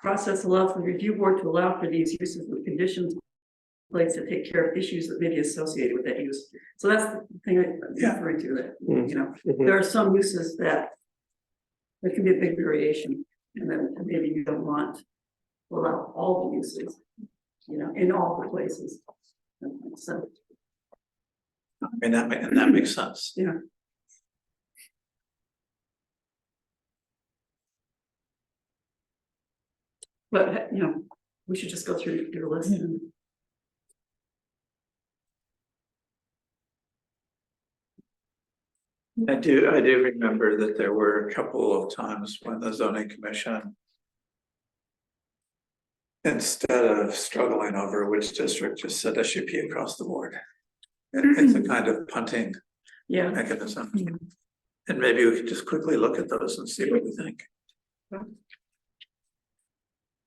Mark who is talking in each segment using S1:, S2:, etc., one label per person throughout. S1: Process allows the review board to allow for these uses with conditions. in Place to take care of issues that may be associated with that use. So that's the thing I'm
S2: Yeah.
S1: referring to that,
S3: Mm.
S1: you know,
S3: Mhm.
S1: there are some uses that. There can be a big variation and then maybe you don't want. to Allow all the uses, you know, in all the places. So,
S2: And that, ma- and that makes sense.
S1: Yeah. but, you know, we should just go through your list and.
S2: I do, I do remember that there were a couple of times when the zoning commission. Instead of struggling over which district, just said SUP across the board. It- It's a kind of punting
S1: Yeah,
S2: mechanism.
S1: Mhm.
S2: And maybe we could just quickly look at those and see what we think.
S1: Sure.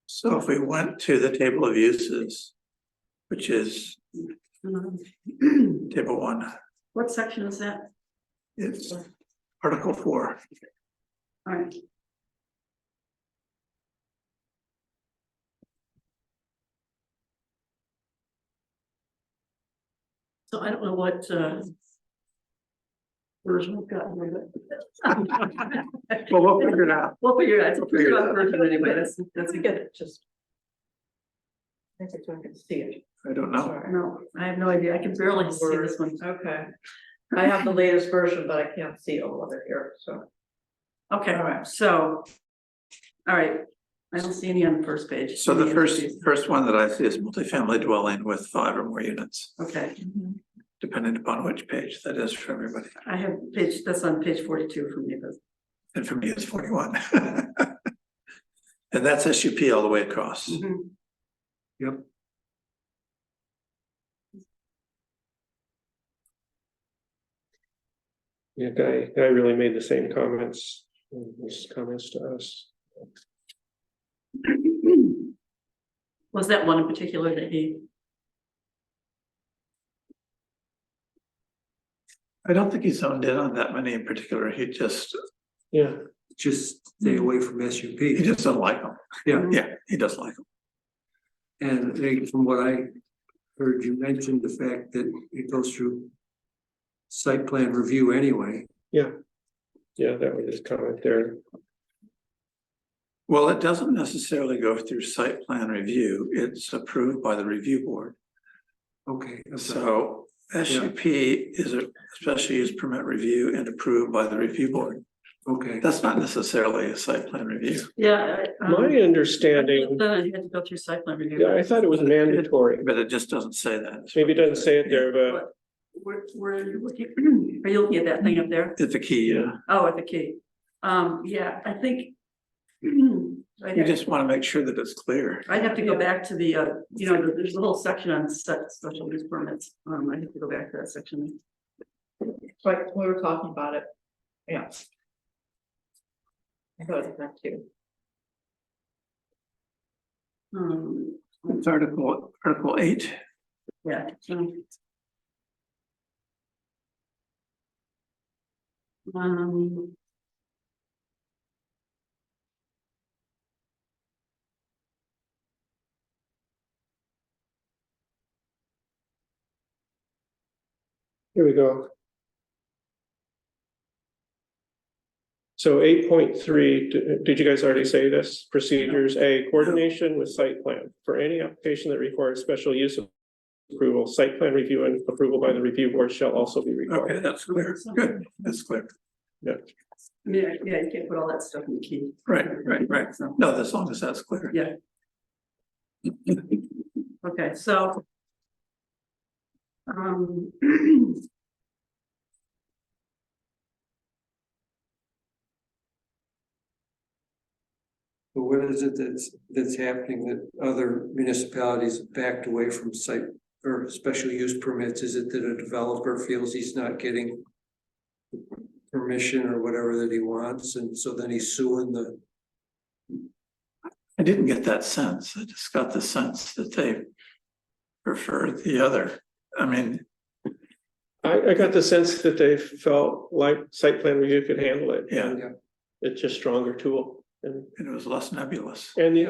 S2: So if we went to the table of uses, which is
S1: um,
S2: table one,
S1: What section is that?
S2: it's article four.
S1: Alright, so I don't know what, uh. Version we've gotten rid of.
S3: Well, we'll figure it out.
S1: We'll figure it out, we'll figure
S2: Figure it
S1: it out
S2: out.
S1: version anyway, that's, that's a good,
S4: just. I think it's when I can see it.
S2: I don't know.
S4: Sorry.
S1: no, I have no idea, I can barely see this one,
S4: Okay. I have the latest version, but I can't see all of it here, so.
S1: okay,
S4: Alright.
S1: so. Alright, I don't see any on the first page.
S2: So the
S1: Any of
S2: first,
S1: these.
S2: first one that I see is multifamily dwelling with five or more units,
S1: Okay.
S2: depending upon which page that is for everybody.
S1: I have page, that's on page forty-two for me, but
S2: And for me, it's forty-one. And that's SUP all the way across.
S5: Mm-hmm.
S2: Yep.
S3: Yeah, Guy, Guy really made the same comments, his comments to us.
S1: was that one in particular that he,
S2: I don't think he zoned in on that many in particular. He just,
S3: Yeah,
S5: just stay away from SUP.
S2: he just doesn't like them.
S5: Yeah.
S2: Yeah, he does like them.
S5: And I think from what I heard you mention, the fact that it goes through site plan review anyway.
S3: yeah, that was his comment there.
S2: Well, it doesn't necessarily go through site plan review. It's approved by the review board.
S5: Okay, I'm sorry.
S2: So SUP is a special use permit review and approved by the review board.
S5: okay,
S2: That's not necessarily a site plan review,
S1: yeah. I, um,
S3: My understanding,
S1: Then I had to go through site plan review.
S3: yeah, I thought it was mandatory,
S2: but it just doesn't say that.
S3: maybe it doesn't say it there, but
S1: But Where, where are you looking? Are you looking at that thing up there?
S2: It's a key, yeah.
S1: Oh, at the key. Um, yeah, I think. I'd
S2: You
S1: have,
S2: just want to make sure that it's clear.
S1: I'd have to go back to the, uh, you know, there's a whole section on se- special use permits. Um, I have to go back to that section.
S4: Like, we were talking about it. Yeah. I thought it was meant to.
S1: Um,
S2: It's article, article eight.
S1: yeah, so. Um.
S3: here we go. So eight point three, did you guys already say this? Procedures, A, coordination with site plan. For any application that requires special use approval, site plan review and approval by the review board shall also be required.
S2: Okay, that's clear. Good, that's clear.
S1: I mean, I- yeah, you can't put all that stuff in the key.
S2: Right, right, right.
S1: So,
S2: No, as long as that's clear.
S1: Yeah. okay, so. Um.
S5: but what is it that's, that's happening that other municipalities backed away from site or special use permits? Is it that a developer feels he's not getting permission or whatever that he wants, and so then he's suing the,
S2: I didn't get that sense. I just got the sense that they prefer the other. I mean,
S3: I, I got the sense that they felt like site plan review could handle it.
S2: Yeah.
S3: It's just stronger tool and,
S2: it was less nebulous.
S3: and the